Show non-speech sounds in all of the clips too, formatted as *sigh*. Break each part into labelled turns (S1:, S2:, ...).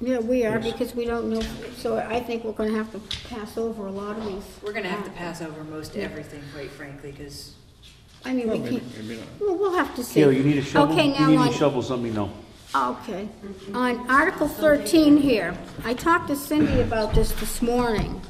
S1: Yeah, we are,
S2: Yes.
S1: because we don't know, so I think we're gonna have to pass over a lot of these. Uh,
S3: We're gonna have to pass over most everything, quite frankly, because
S1: I mean,
S2: Well,
S1: we
S2: maybe,
S1: can't,
S2: maybe not.
S1: well, we'll have to see.
S4: Kayla, you need a shovel?
S1: Okay, now
S4: You need
S1: on-
S4: to shovel something, no.
S1: Okay, on Article 13 here, I talked to Cindy about this this morning.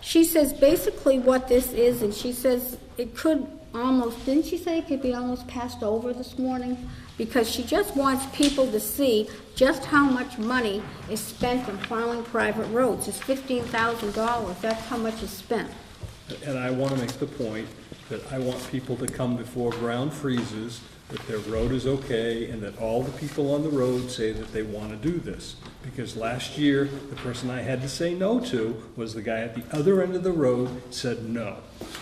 S1: She says basically what this is, and she says it could almost, didn't she say it could be almost passed over this morning? Because she just wants people to see just how much money is spent on plowing private roads. It's $15,000, that's how much is spent.
S2: And I want to make the point that I want people to come before ground freezes, that their road is okay, and that all the people on the road say that they want to do this. Because last year, the person I had to say no to was the guy at the other end of the road said no.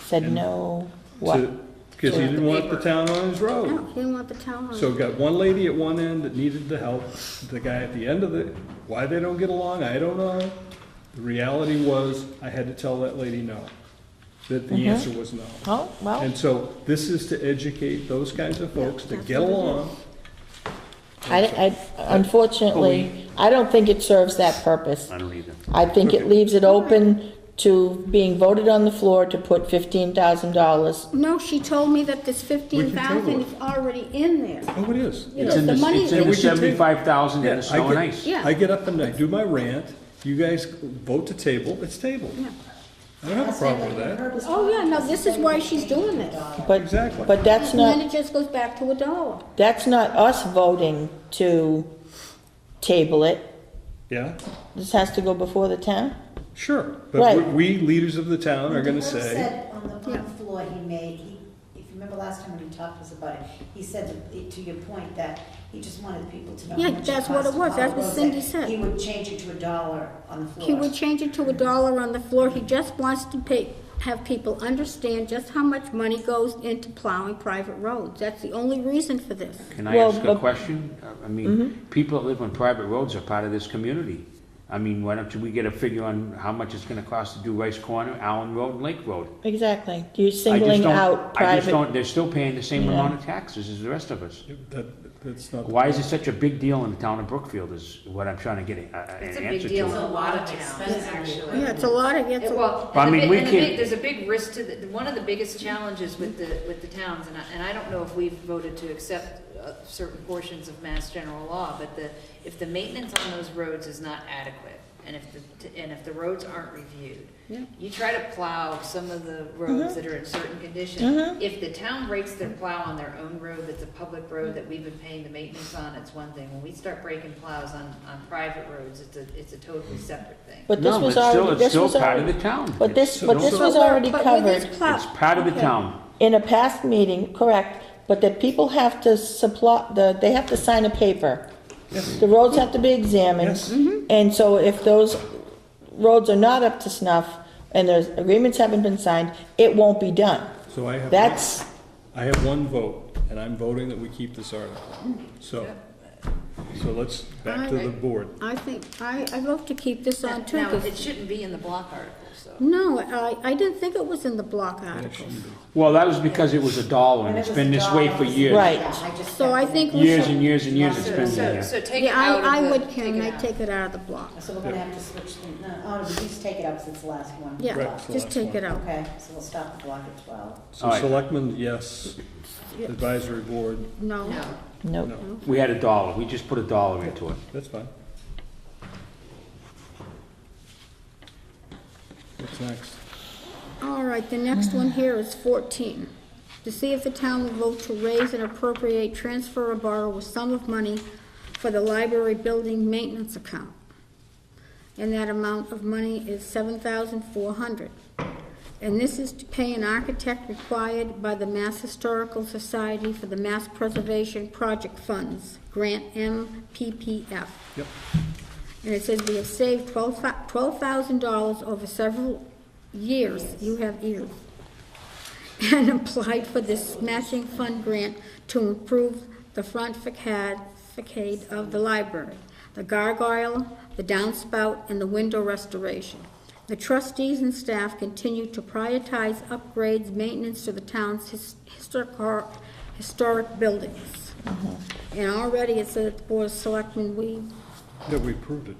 S5: Said no, what?
S2: Because he didn't want the town on his road.
S1: No, didn't want the town on
S2: So we've got one lady at one end that needed the help, the guy at the end of the, why they don't get along, I don't know. The reality was, I had to tell that lady no, that the answer was no.
S5: Oh, well,
S2: And so this is to educate those kinds of folks to get along.
S5: I, I- unfortunately, I don't think it serves that purpose.
S4: I don't either.
S5: I think it leaves it open to being voted on the floor to put fifteen thousand dollars.
S1: No, she told me that this
S2: table
S1: 15,000
S2: it.
S1: is already in there.
S2: Oh, it is.
S1: Yeah.
S4: It's in
S1: The
S4: the,
S1: money
S4: it's
S1: that
S4: in
S1: we
S4: the
S1: could
S2: take-
S4: seventy-five thousand
S2: Yeah,
S4: in the
S2: I
S4: snow and
S2: get-
S4: ice.
S1: Yeah.
S2: I get up and I do my rant, you guys vote to table, it's tabled.
S1: Yeah.
S2: I don't have a problem with that.
S1: Oh, yeah, no, this is why she's doing this.
S5: But,
S2: Exactly.
S5: but that's
S1: And then
S5: not,
S1: it just goes back to a dollar.
S5: that's not us voting to table it.
S2: Yeah,
S5: This has to go before the town.
S2: sure. But
S5: Right.
S2: we, we leaders of the town are gonna
S6: Herb
S2: say,
S6: said on the one floor he made, he- if you remember last time when he talked to us about it, he said that- to your point that he just wanted people to know. how
S1: Yeah,
S6: much it
S1: that's what
S6: cost
S1: it was.
S6: to
S1: That's
S6: follow
S1: what
S6: the
S1: Cindy
S6: rules,
S1: said.
S6: that He would change it to a dollar on the floor.
S1: He would change it to a dollar on the floor, he just wants to pay, have people understand just how much money goes into plowing private roads. That's the only reason for this.
S4: Can I
S5: Well,
S4: ask a
S5: but- Mm-hmm.
S4: question? I- I mean, people that live on private roads are part of this community. I mean, why don't we get a figure on how much it's gonna cost to do Rice Corner, Allen Road, and Lake Road?
S5: Exactly. You're
S4: I just
S5: singling
S4: don't-
S5: out
S4: I just
S5: private.
S4: don't, they're still paying the same
S5: Yeah.
S4: amount of taxes as the rest of us.
S2: that, that's not. the
S4: Why is it such a big deal in the town of Brookfield is what I'm trying to get a- a- an
S3: it's a
S4: answer
S3: big
S4: to.
S3: deal in a lot of towns, actually.
S1: Yeah, it's a lot of, it's
S3: It-
S1: a,
S3: Well,
S4: But I
S3: and the big-
S4: mean, we
S3: and the
S4: can't-
S3: big, there's a big risk to, the- one of the biggest challenges with the, with the towns, and I, and I don't know if we've voted to accept uh, certain portions of mass general law, but the, if the maintenance on those roads is not adequate, and if the, and if the roads aren't reviewed, you try to plow some of the roads that are in certain condition. If the town breaks their plow on their own road, that's a public road that we've been paying the maintenance on, it's one thing. When we start breaking plows on, on private roads, it's a, it's a totally separate thing.
S5: But this
S4: No,
S5: was
S4: it's still-
S5: already,
S4: it's
S5: this
S4: still
S5: was
S4: part of
S5: already-
S4: the town.
S5: But this,
S4: It's-
S5: but this
S4: it's-
S5: was already
S1: But with this
S5: covered.
S1: plow-
S4: It's part of the
S1: Okay.
S4: town.
S5: in a past meeting, correct, but that people have to supply, the, they have to sign a paper. The roads have to be examined,
S2: Yes.
S5: and so if those roads are not up to snuff, and those agreements haven't been signed, it won't be done.
S2: So I have.
S5: That's,
S2: I have one vote, and I'm voting that we keep this article. So, so let's, back to the board.
S1: I think, I, I'd love to keep this on too.
S3: Now,
S1: 'cause-
S3: it shouldn't be in the block article, so.
S1: No, I, I didn't think it was in the block article.
S4: Well, that was because it was a dollar and
S6: When it
S4: it's
S6: was
S4: been
S6: a
S4: this way
S6: dollar,
S4: for
S6: it was-
S4: years.
S5: Right.
S6: yeah, I just
S1: So I
S6: kept it.
S1: think we should.
S4: Years and years and years it's
S3: So-
S4: been in
S3: So,
S4: there.
S3: so take it
S1: Yeah,
S3: out of the.
S1: I, I would,
S3: take
S1: Karen,
S3: it
S1: I'd
S3: out.
S1: take it out of the block.
S6: So we're gonna have to switch, things- no, oh, at least take it up since the last one.
S1: Yeah,
S2: Right, so
S1: just
S2: that's
S1: take
S2: one.
S1: it out.
S6: Okay, so we'll stop the block at twelve.
S2: So
S4: All right.
S2: selectmen, yes. Advisory board,
S1: No.
S3: No,
S5: no,
S2: no.
S4: We had a dollar, we just put a dollar into it.
S2: That's fine. What's next?
S1: All right, the next one here is 14. To see if the town will vote to raise and appropriate, transfer or borrow a sum of money for the library building maintenance account. And that amount of money is 7,400. And this is to pay an architect required by the Mass Historical Society for the Mass Preservation Project Funds, Grant MPPF.
S2: Yep.
S1: And it says we have saved twelve thousand dollars over several years, you have ears. *laughs* And applied for this matching fund grant to improve the front facade, facade of the library, the gargoyle, the downspout, and the window restoration. The trustees and staff continue to prioritize upgrades, maintenance to the town's his- historic, historic buildings. And already it said, that the Board of Selectmen, we
S2: Yeah, we approved it.